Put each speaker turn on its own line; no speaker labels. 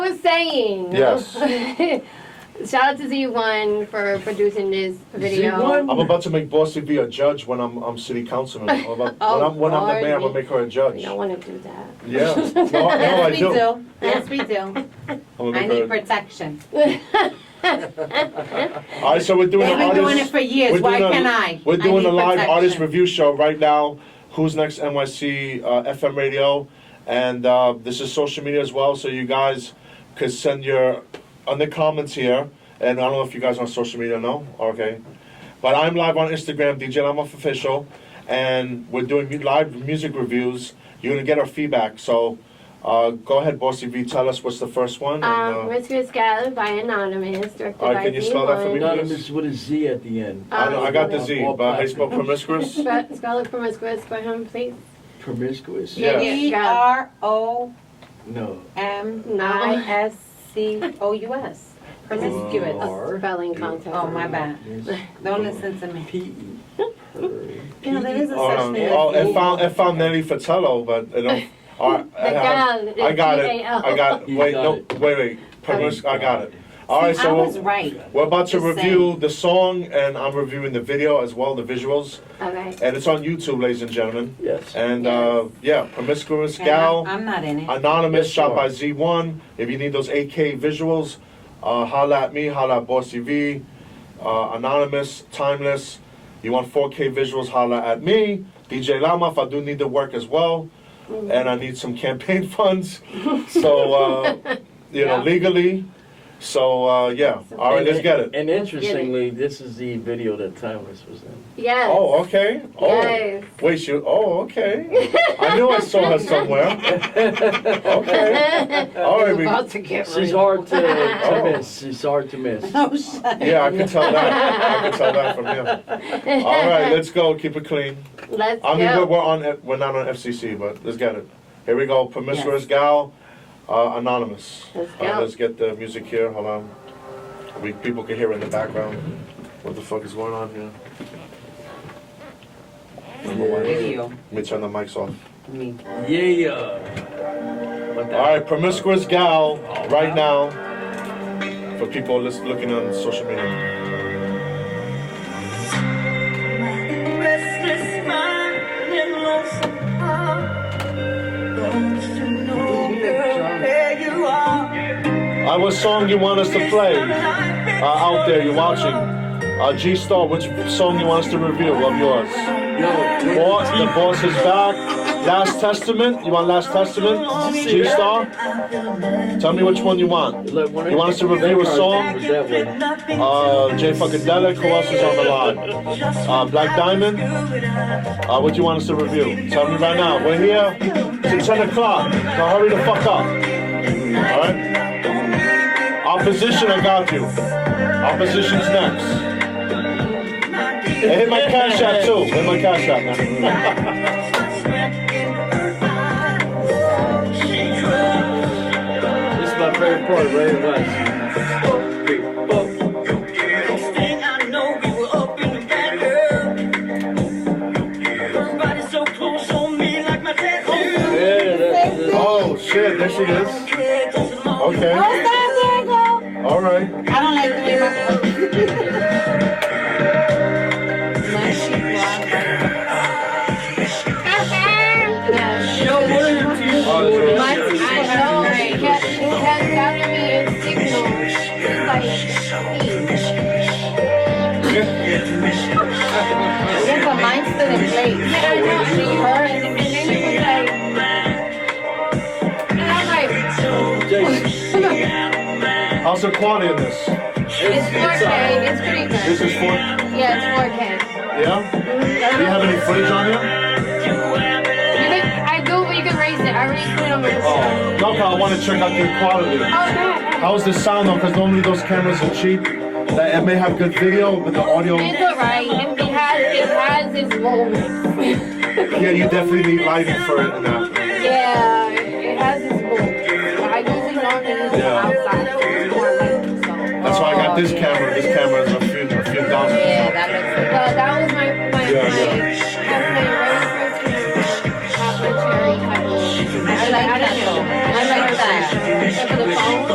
saying.
Yes.
Shout out to Z1 for producing this video.
I'm about to make Bossy be a judge when I'm, I'm city councilman. I'm about- When
Oh,
I'm, when I'm the mayor, I'm gonna
Lord.
make her a
We
judge.
don't want to do that.
Yeah, no, no, I
Yes, we
do. I'm
do. Yes, we do.
gonna
I
make
need
her.
protection.
All right, so we're doing
They've
an
been doing it
artist,
for years,
we're
why
doing a-
can't I?
we're
I
doing
need
a live artist
protection.
review show right now. Who's Next NYC, uh, FM radio. And, uh, this is social media as well, so you guys could send your, on the comments here. And I don't know if you guys are on social media, no? Okay. But I'm live on Instagram, DJ Lamoff Official, and we're doing mu- live music reviews. You're gonna get our feedback, so, uh, go ahead, Bossy V, tell us what's the first one. and,
Um,
uh,
Rescue Skyler by Anonymous, directed
All right,
by
can you spell that for me?
Z1.
Anonymous with a Z at the end.
I don't- I got
um,
the Z,
All
but I
platforms.
spoke promiscuous.
Spe- Spell it from a square, square home, please.
Promiscuous?
Yeah.
E R O
No.
M I S C O U S. Promiscuous.
Or-
Spelling contest.
Oh, my bad. Don't listen to me.
P. E.
Yeah, there is a
Oh,
such
um,
thing.
oh, it found it found Nelly Fatello, but it don't. I, I,
The
have-
gal is
I got it.
G-A-L.
I got.
You
Wait,
got
no,
it.
wait, wait. Promis- I got it. All right,
I was
so
right.
we're about to
Just
review the song, and I'm reviewing the video as well, the visuals,
Okay.
and it's on YouTube, ladies and gentlemen.
Yes.
And uh, yeah, promiscuous
And I'm-
gal,
I'm not in it.
anonymous,
Yes,
shot
you
by
are.
Z1. If you need those AK visuals, uh, holla at me, holla at Boss TV. Uh, anonymous, timeless. You want 4K visuals? Holla at me, DJ Lamoff. I do need the work as well, and I need some campaign funds. So uh, you know,
Yeah.
legally. So uh, yeah. All right, let's get it.
And interestingly, this is the video that Timeless was in.
Yes.
Oh, okay. Oh,
Yes.
wait, she. Oh, okay. I knew I saw her somewhere. Oh, Okay. All right,
I'm
we,
about to get
She's
real.
hard to, to
Oh.
miss. She's hard to miss.
Oh, shut
Yeah, I can tell that. I can tell that from here. All right, let's go. Keep it clean.
Let's
I mean,
go.
we're, we're on. F- We're not on FCC, but let's get it. Here we go. Promiscuous
Yes.
gal, uh, anonymous.
Let's
All right,
go.
let's get the music here. Hold on. We people can hear in the background. What the fuck is going on here? Number one.
Video,
Let me turn the mics off.
me.
Yeah. What the-
All right, promiscuous gal, right now. For people lis- looking on social media.
Restless mind and lonesome heart. Don't you know, girl, where you are?
Uh, what song you want us to play? uh, out there, you're watching. Uh, G Star, which song you want us to review of yours?
Yo,
Boss, the boss is back. Last Testament, you want Last Testament? G Star, tell me which one you want.
look, one of
You want us to review a song?
Was that one?
Uh, Jay Funkadelic, who else is on the line? Uh, Black Diamond, uh, what do you want us to review? Tell me right now. We're here, it's 10 o'clock, now hurry the fuck up. Alright? Opposition, I got you. Opposition's next. And hit my cash app too. Hit my cash app, man.
This is my favorite part, Ray West.
Oh,
Yeah, that, that,
Oh shit, there she is.
Oh,
Okay.
stop, Diego!
All right.
I don't like the way my. My sheep
Yes.
Uh,
My
I know. She kept, she kept telling me it's signal. She's like, please.
Yeah, but mine's still in place.
Yeah, I know. And then you heard, and then you was like, and I'm like,
Jason,
how's the quality of this?
it's
it's, it's,
4K.
uh,
It's pretty
This
good.
is for
Yeah, it's 4K.
yeah. Do you
Mhm.
have any footage on here?
You can, I do, but you can raise it. I already put it on my. Oh.
Oh, no, 'cause I want to check out the quality.
God.
How's the sound though? Because normally those cameras are cheap. That it may have good video, but the audio.
It's alright. It, it has it has its moments.
Yeah, you definitely need lighting for it. And that.
yeah, it has its moments. I usually normally use it
Yeah.
outside. It's more like so.
That's why I got this
Oh, yeah.
camera
Uh,